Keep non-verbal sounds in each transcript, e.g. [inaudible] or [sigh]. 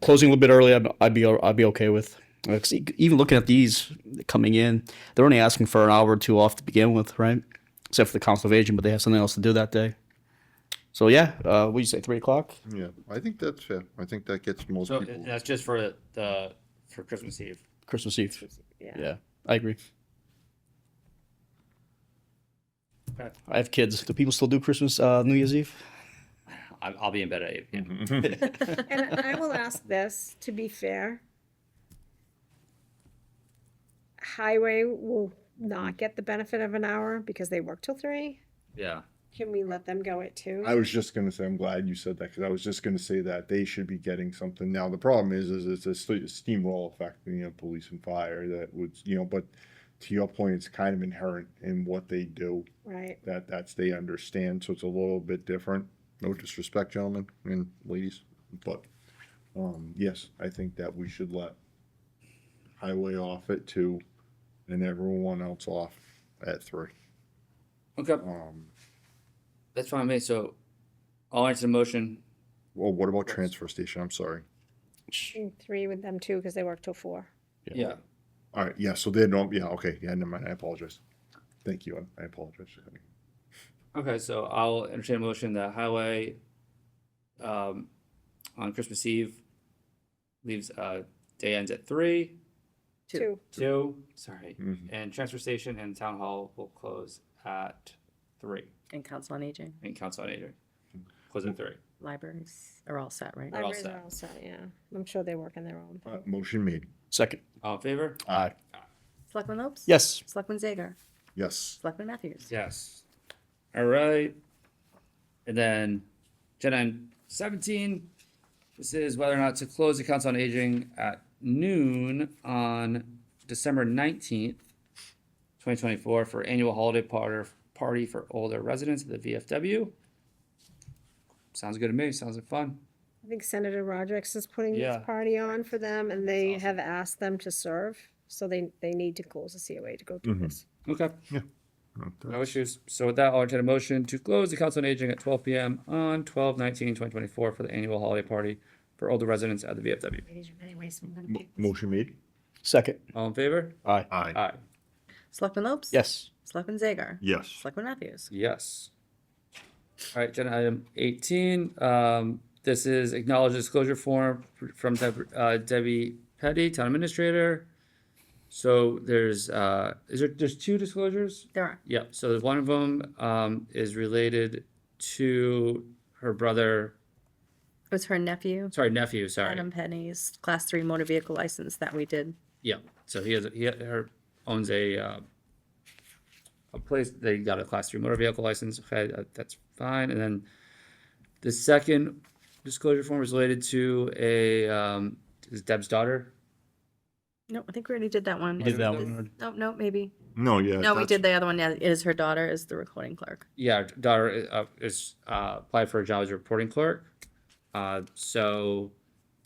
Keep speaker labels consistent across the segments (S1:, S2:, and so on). S1: closing a little bit early, I'd, I'd be I'd be okay with. Uh, 'cause e- even looking at these coming in, they're only asking for an hour or two off to begin with, right? Except for the Council of Aging, but they have something else to do that day. So yeah, uh, what do you say, three o'clock?
S2: Yeah, I think that's fair. I think that gets most
S3: So
S2: people.
S3: that's just for the for Christmas Eve.
S1: Christmas Eve.
S4: Yeah.
S1: Yeah, I agree.
S3: Okay.
S1: I have kids. Do people still do Christmas, uh, New Year's Eve?
S3: I'll, I'll be in bed at eight. p.m.
S4: [laughs]
S2: [laughs]
S4: And I will ask this, to be fair. Highway will not get the benefit of an hour because they work till three.
S3: Yeah.
S4: Can we let them go at two?
S2: I was just gonna say, I'm glad you said that, because I was just gonna say that they should be getting something. Now, the problem is, is it's a st- steamroll effect, you know, police and fire that would, you know, but to your point, it's kind of inherent in what they do,
S4: Right,
S2: that, that's, they understand, so it's a little bit different. No disrespect, gentlemen and ladies, but, um, yes, I think that we should let highway off at two and everyone else off at three.
S3: Okay,
S2: Um,
S3: that's fine with me. So I'll answer the motion.
S2: well, what about transfer station? I'm sorry.
S4: and three with them too, because they work till four.
S3: Yeah.
S2: All right, yeah, so they don't, yeah, okay, yeah, never mind, I apologize. Thank you, I- I apologize.
S3: Okay, so I'll entertain a motion that highway um, on Christmas Eve leaves uh, day ends at three,
S5: Two.
S4: Two,
S3: two, sorry,
S2: Mhm.
S3: and transfer station and town hall will close at three.
S5: And Council on Aging,
S3: And council on aging close at three.
S5: libraries are all set, right?
S3: all
S4: libraries
S3: set.
S4: are all set, yeah. I'm sure they work on their own.
S2: Uh, Motion made,
S1: Second.
S3: All in favor?
S1: Aye.
S5: Selectman Lopes?
S1: Yes.
S5: Selectman Zager?
S2: yes.
S5: Selectman Matthews?
S3: Yes. All right. And then agenda item seventeen. This is whether or not to close the council on aging at noon on December nineteenth, twenty twenty-four for annual holiday party, party for older residents of the VFW. Sounds good to me. Sounds like fun.
S4: I think Senator Rodrick's is putting
S3: Yeah.
S4: this party on for them and they have asked them to serve. So they, they need to close the COA to go do this.
S3: Okay.
S2: Okay.
S3: No issues. So with that, I'll entertain a motion to close the Council on Aging at twelve PM on 12-19-2024 for the annual holiday party for older residents at the VFW.
S2: Mo- Motion made?
S1: Second.
S3: All in favor?
S1: Aye.
S2: Aye.
S3: Aye.
S5: Selectman Lopes?
S1: Yes.
S5: Selectman Zager?
S2: Yes.
S5: Selectman Matthews?
S3: Yes. All right, agenda item eighteen, um, this is acknowledged disclosure form from Deb- uh, Debbie Petty, Town Administrator. So there's, uh, is there, there's two disclosures?
S5: There are.
S3: Yeah, so one of them, um, is related to her brother,
S5: It was her nephew,
S3: sorry nephew, sorry.
S5: Adam Penny's Class 3 motor vehicle license that we did.
S3: Yeah, so he has, he her owns a, uh, a place, they got a class three motor vehicle license, okay, that- that's fine, and then the second disclosure form is related to a, um, is Deb's daughter?
S5: No, I think we already did that one.
S1: We did that one.
S5: No, no, maybe.
S2: No, yeah.
S5: No, we
S2: that's-
S5: did the other one. Yeah, It is her daughter is the recording clerk.
S3: Yeah, her daughter uh, is, uh, applied for a job as a reporting clerk. Uh, so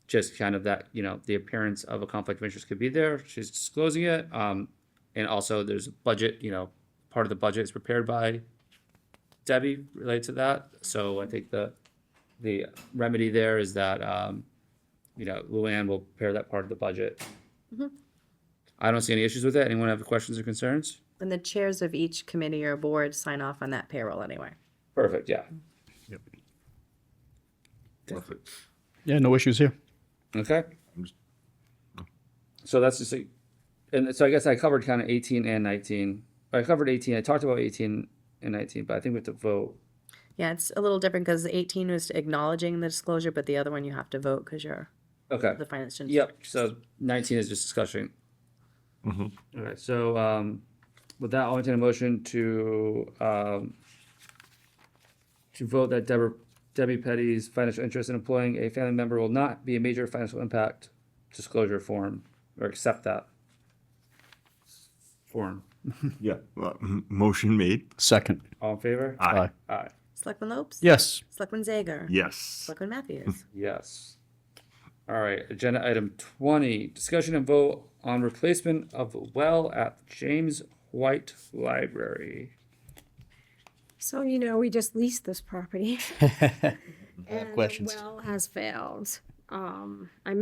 S3: just kind of that, you know, the appearance of a conflict of interest could be there, she's disclosing it, um, and also there's a budget, you know, part of the budget is prepared by Debbie related to that, so I think the, the remedy there is that, um, you know, Luann will prepare that part of the budget. I don't see any issues with it, anyone have questions or concerns?
S5: And the chairs of each committee or board sign off on that payroll anyway.
S3: Perfect, yeah,
S2: Perfect.
S1: Yeah, no issues here.
S3: okay.
S2: I'm just-
S3: So that's just, a- and so I guess I covered kind of eighteen and nineteen. I covered eighteen. I talked about eighteen and nineteen, but I think we have to vote.
S5: Yeah, it's a little different because 18 was acknowledging the disclosure, but the other one you have to vote because you're
S3: Okay.
S5: the finance. director.
S3: Yep. So nineteen is just discussion. All right. So um, with that, I'll entertain a motion to um, to vote that Deborah Debbie Petty's financial interest in employing a family member will not be a major financial impact disclosure form or accept that form.
S2: Yeah, well, m- motion made?
S1: Second.
S3: All in favor?
S1: Aye.
S3: Aye.
S5: Selectman Lopes?
S1: [laughs] Yes.
S5: Selectman Zager?
S2: Yes.
S5: Selectman Matthews?
S3: Yes. All right, agenda item twenty, discussion and vote on replacement of well at James White Library.
S4: So, you know, we just leased this property. [laughs]
S1: questions.
S4: And the well has failed. Um, I